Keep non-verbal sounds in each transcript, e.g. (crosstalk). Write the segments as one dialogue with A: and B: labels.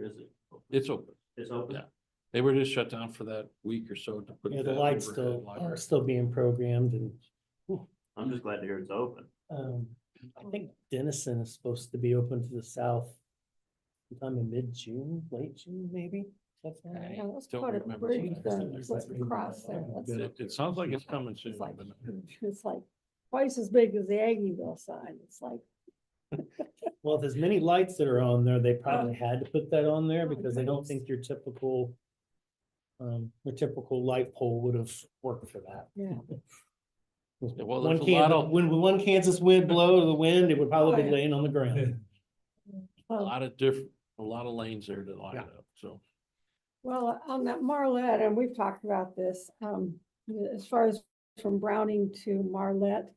A: is it?
B: It's open.
A: It's open?
B: Yeah. They were just shut down for that week or so to put.
C: Yeah, the
B: that
C: lights
B: overhead
C: still
B: light.
C: are still being programmed and
A: I'm just glad to hear it's open.
C: um,
D: Oh.
C: I think Denison is supposed to be open to the south. Sometime in mid-June, late June, maybe. That's
D: I don't
C: right.
D: know, that's
B: Don't
D: part of the
B: remember
D: bridge,
B: exactly
D: though,
C: what
D: that's
C: it is.
D: across there,
C: But
D: that's-
B: It, it sounds like it's coming soon.
D: it's like,
B: but-
D: (laughs) it's like twice as big as the Aggieville sign, it's like,
C: Well, if there's many lights that are on there, they probably had to put that on there
D: Oh,
C: because I don't
D: goodness.
C: think your typical. Um, your typical light pole would have worked for that.
D: (laughs) yeah.
B: Yeah, Well,
C: One
B: there's a lot
C: Kansas,
B: of,
C: when one Kansas wind blow to the wind, it would probably
D: Oh, yeah.
C: be laying on the
D: (laughs)
C: ground.
B: a
D: Well,
B: lot of different, a lot of lanes there to line
C: Yeah.
B: up, so.
D: Well, on that Marlette, and we've talked about this, um, as far as from Browning to Marlette.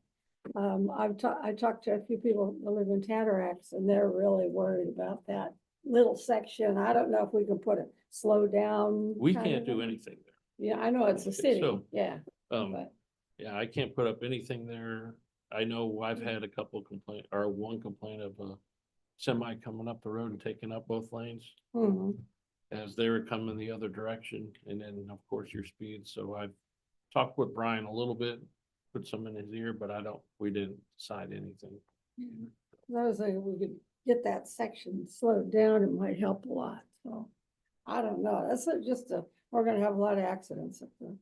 D: Um, I've talked, I talked to a few people that live in Tatarax and they're really worried about that little section. I don't know if we can put a slow down.
B: We
D: kind
B: can't
D: of
B: do
D: a-
B: anything there.
D: Yeah, I know it's a city,
B: So-
D: yeah,
B: Um,
D: but
B: yeah, I can't put up anything there. I know I've had a couple complaint, or one complaint of a semi coming up the road and taking up both lanes.
D: mhm,
B: as they were coming the other direction, and then, of course, your speed, so I've talked with Brian a little bit, put some in his ear, but I don't, we didn't decide anything.
D: those are, we could get that section slowed down, it might help a lot, so. I don't know, that's a- just a, we're gonna have a lot of accidents up there.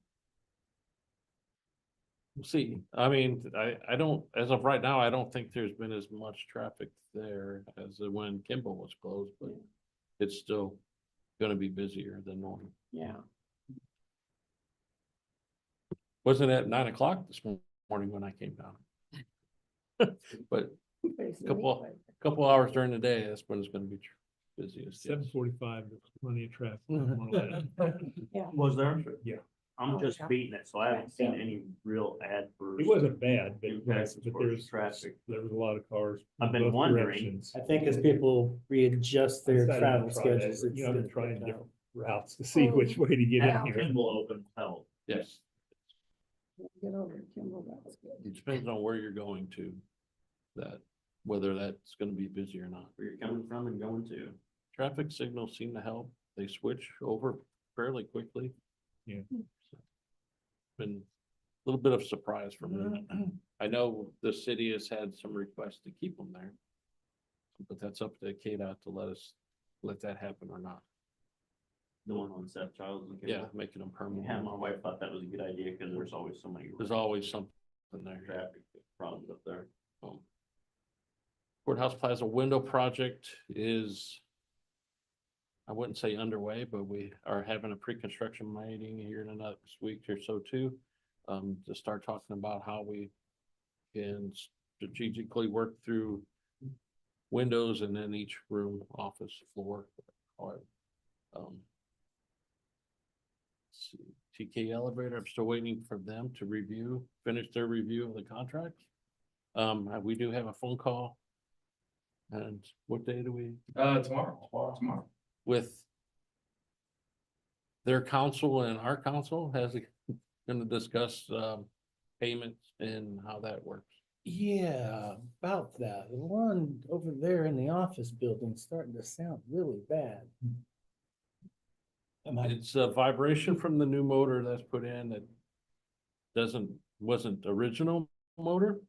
B: We'll see, I mean, I, I don't, as of right now, I don't think there's been as much traffic there as when Kimball was closed, but it's still gonna be busier than normal.
D: Yeah,
B: Wasn't at nine o'clock this morning when I came down. But
D: (laughs) basically.
B: Couple- a couple hours during the day, that's when it's gonna be tr- busiest. yes.
E: Seven forty-five, plenty
C: (laughs)
E: of traffic. on one eleven.
A: Was there?
E: Yeah.
A: I'm
D: Oh,
A: just
D: yeah.
A: beating it, so I haven't seen
D: Yeah.
A: any real ad for.
E: It wasn't bad, but
A: Impact
E: but
A: as far as
E: there's,
A: traffic.
E: there was a lot of cars.
A: I've
E: in
A: been
E: both
A: wondering.
E: directions.
C: I think as people readjust their
E: I've decided to
C: travel
E: try that.
C: schedules. it's
E: You know, I've been
C: gonna
E: trying
C: work out.
E: different routes to see which way to get in
A: Had
E: here.
A: Kimball open held.
B: Yes.
D: Get over to Kimball, that was good.
B: It depends on where you're going to, that, whether that's gonna be busy or not.
A: where you're coming from and going to.
B: Traffic signals seem to help. They switch over fairly quickly.
E: Yeah.
B: Been a little bit of surprise for me. I know the city has had some requests to keep them there. But that's up to KDOT to let us, let that happen or not.
A: The one on Seth Childs and
B: Yeah,
A: Kimball.
B: making them
A: Yeah,
B: permanent.
A: my wife thought that was a good idea because there's always so many
B: There's always something there.
A: traffic problems up there.
B: Um, Courthouse Plaza window project is. I wouldn't say underway, but we are having a pre-construction meeting here in the next week or so too. Um, to start talking about how we can strategically work through. Windows and then each room, office, floor, or, um. TK elevator, I'm still waiting for them to review, finish their review of the contract. Um, uh, we do have a phone call. And what day do we,
F: Uh, tomorrow, tomorrow.
B: with their council and our council has, gonna discuss, um, payments and how that works.
C: Yeah, about that. The one over there in the office building's starting to sound really bad. Am I-
B: It's a vibration from the new motor that's put in that doesn't, wasn't original motor,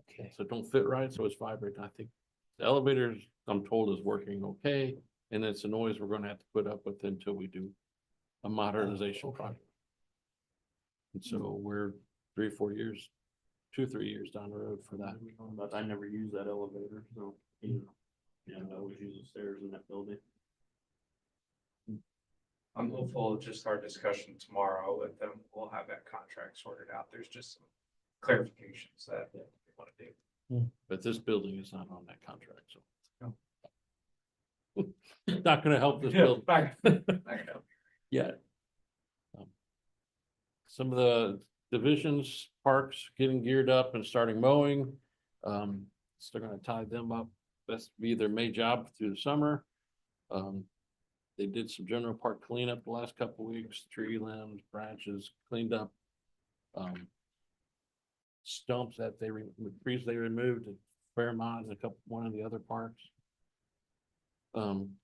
C: okay.
B: so it don't fit right, so it's vibrating. I think the elevators, I'm told, is working okay, and it's a noise we're gonna have to put up with until we do a modernization
C: okay.
B: project. And so we're three, four years, two, three years down the road for that.
A: But I never use that elevator, so, you know, yeah, I always use the stairs in that building.
F: I'm hopeful just our discussion tomorrow with them, we'll have that contract sorted out. There's just some clarifications that we want to do.
B: But this building is not on that contract, so. (laughs) Not gonna help this
F: (laughs)
B: building. (laughs)
F: Back- back up.
B: Yeah. Um, Some of the divisions, parks getting geared up and starting mowing. Um, still gonna tie them up. That's be their main job through the summer. Um, they did some general park cleanup the last couple weeks, tree limbs, branches cleaned up. Um. Stumps that they, re- trees they removed at Fairmont and a couple, one of the other parks. Um,